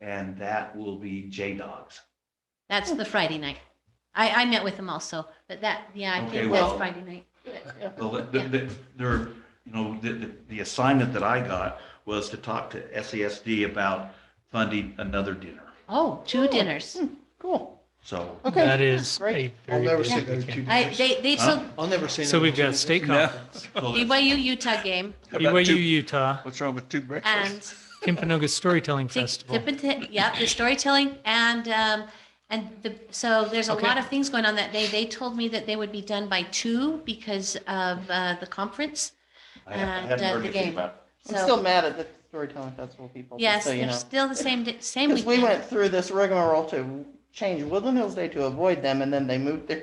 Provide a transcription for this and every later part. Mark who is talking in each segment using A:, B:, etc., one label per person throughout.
A: and that will be J-Dogs.
B: That's the Friday night. I, I met with them also, but that, yeah, I
A: Okay,
B: think that's
A: well-
B: Friday night.
A: The, the, the, there- you know, the, the, the assignment that I got was to talk to SASD about funding another dinner.
B: Oh, two dinners.
C: Hmm. Cool.
A: So,
C: Okay.
D: That is a
C: great.
E: I'll
D: very
E: never
D: busy
E: say no to
D: weekend.
B: I, they, they
A: Huh?
B: took
E: I'll never say no.
D: So
E: to
D: we've got
E: Jesus.
D: state conference,
A: so that's-
B: BYU Utah game
D: BYU Utah,
F: What's wrong with two
B: and
D: Kimpanoga Storytelling
B: Tip-
D: Festival.
B: tip and tip- yeah, the storytelling and, um, and the, so there's a
D: Okay.
B: lot of things going on that day. They told me that they would be done by two because of, uh, the conference.
A: I ha- I hadn't
B: uh,
A: heard
B: the
A: anything
B: game.
A: about,
C: I'm still
B: So,
C: mad at the storytelling festival people. just
B: yes,
C: So you
B: they're
C: know,
B: still the same, di- same
C: because we
B: weekend.
C: went through this rigmarole to change Woodland Hills Day to avoid them and then they moved their.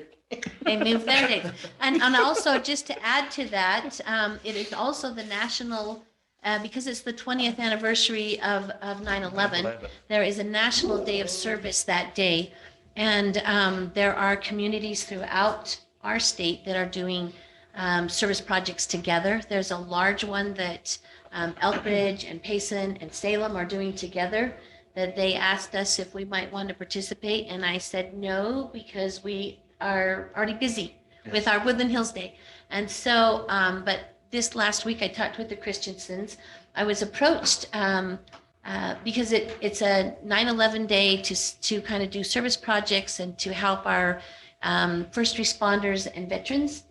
B: They moved their dates. And, and also, just to add to that, um, it is also the national, uh, because it's the twentieth anniversary of, of nine eleven. There is a National Day of Service that day. And um, there are communities throughout our state that are doing um, service projects together. There's a large one that um, Elk Ridge and Payson and Salem are doing together that they asked us if we might want to participate. And I said no, because we are already busy with our Woodland Hills Day. And so, um, but this last week I talked with the Christiansons. I was approached um, uh, because it, it's a 9/11 day to, s- to kind of do service projects and to help our um, first responders and veterans.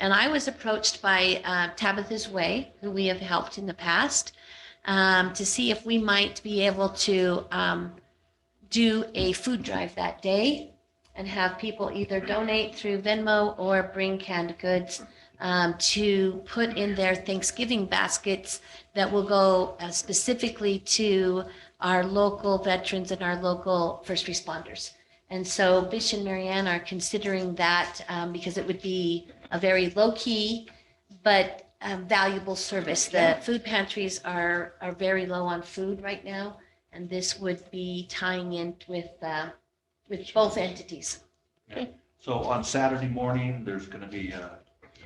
B: And I was approached by uh, Tabitha's Way, who we have helped in the past, um, to see if we might be able to um, do a food drive that day and have people either donate through Venmo or bring canned goods um, to put in their Thanksgiving baskets that will go uh, specifically to our local veterans and our local first responders. And so Bish and Marianne are considering that um, because it would be a very low key but um, valuable service. The food pantries are are very low on food right now, and this would be tying in with uh, with both entities.
A: so on Saturday morning, there's going to be a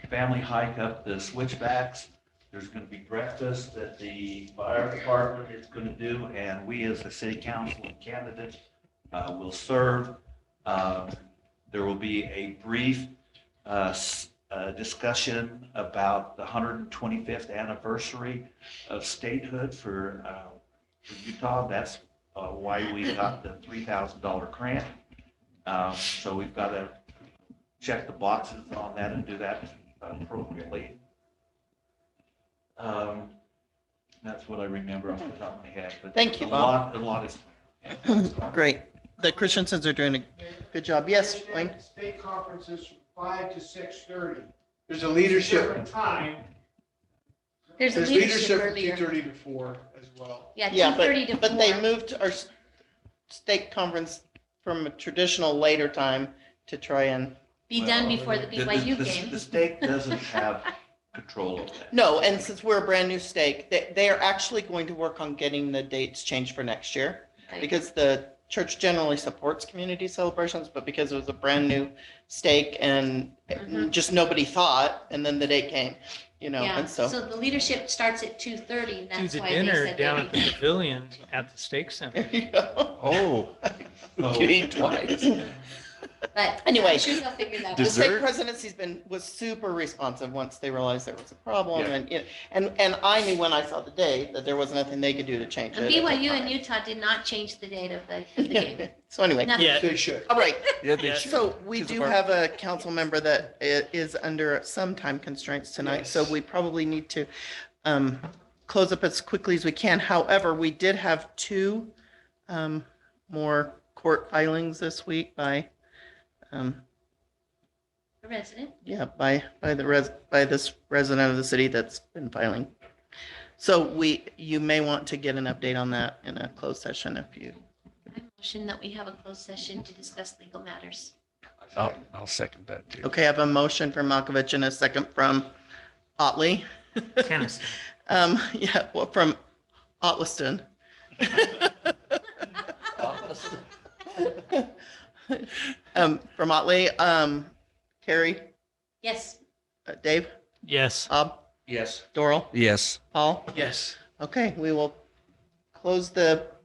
A: family hike up the switchbacks. There's going to be breakfast that the fire department is going to do, and we as the city council and candidates uh, will serve. Uh, There will be a brief uh, s- uh, discussion about the 125th anniversary of statehood for uh, for Utah. That's uh, why we got the $3,000 grant. Uh, So we've got to check the boxes on that and do that appropriately. Um, That's what I remember off the top of my head. but
C: Thank you,
A: a
C: Bob.
A: lot- A lot is.
C: Great. The Christiansons are doing a good job. Yes, Wayne?
E: State conferences from five to six thirty. There's a leadership. Time.
B: There's a
E: There's
B: leadership
E: leadership from two
B: earlier.
E: thirty to four as well.
B: Yeah,
C: Yeah,
B: two thirty to
C: but, but they
B: four.
C: moved our s- state conference from a traditional later time to try and,
B: Be done
A: Well,
B: before the
A: the- the-
B: BYU
A: the-
B: game.
A: The state doesn't have control of that.
C: no, and since we're a brand new stake, they, they are actually going to work on getting the dates changed for next year.
B: Right.
C: Because the church generally supports community celebrations, but because it was a brand new stake and
B: Mhm.
C: just nobody thought, and then the date came, you know,
B: Yeah,
C: and
B: so
C: so.
B: the leadership starts at two thirty, and
D: Do
B: that's
D: the
B: why they
D: dinner
B: said
D: down at the
B: they.
D: pavilion at the Steak Center.
C: There you go.
F: Oh,
A: So-
C: You ate twice.
B: But
C: Anyway.
B: I'm sure they'll figure that
C: The
B: out.
F: Does-
C: state
F: Dessert?
C: presidency's been, was super responsive once they realized there was a problem
A: Yeah.
C: and, you know, and, and I knew when I saw the date that there was nothing they could do to change it.
B: And
C: at the
B: BYU and
C: time.
B: Utah did not change the date of the of the game.
C: So anyway,
B: Nothing.
D: Yeah.
E: They should.
C: all right.
F: yeah, they
D: Yeah.
F: should.
C: So we
F: She's a
C: do
F: bar-
C: have a council member that i- is under some time constraints tonight, so
E: Yes.
C: we probably need to um, close up as quickly as we can. However, we did have two um, more court filings this week by, um,
B: The Resident.
C: yeah, by, by the res, by this resident of the city that's been filing. So we, you may want to get an update on that in a closed session if you,
B: I motion that we have a closed session to discuss legal matters.
F: I'll, I'll second that too.
C: okay, I have a motion from Malkovich and a second from Otley.
D: Tennyson.
C: Um, yeah, well, from Otliston. Um, from Otley, um, Carrie,
B: Yes,
C: uh, Dave,
D: Yes.
C: Bob,
A: Yes.
C: Doral,
F: Yes.
C: Paul.
D: Yes.
C: Okay, we will close the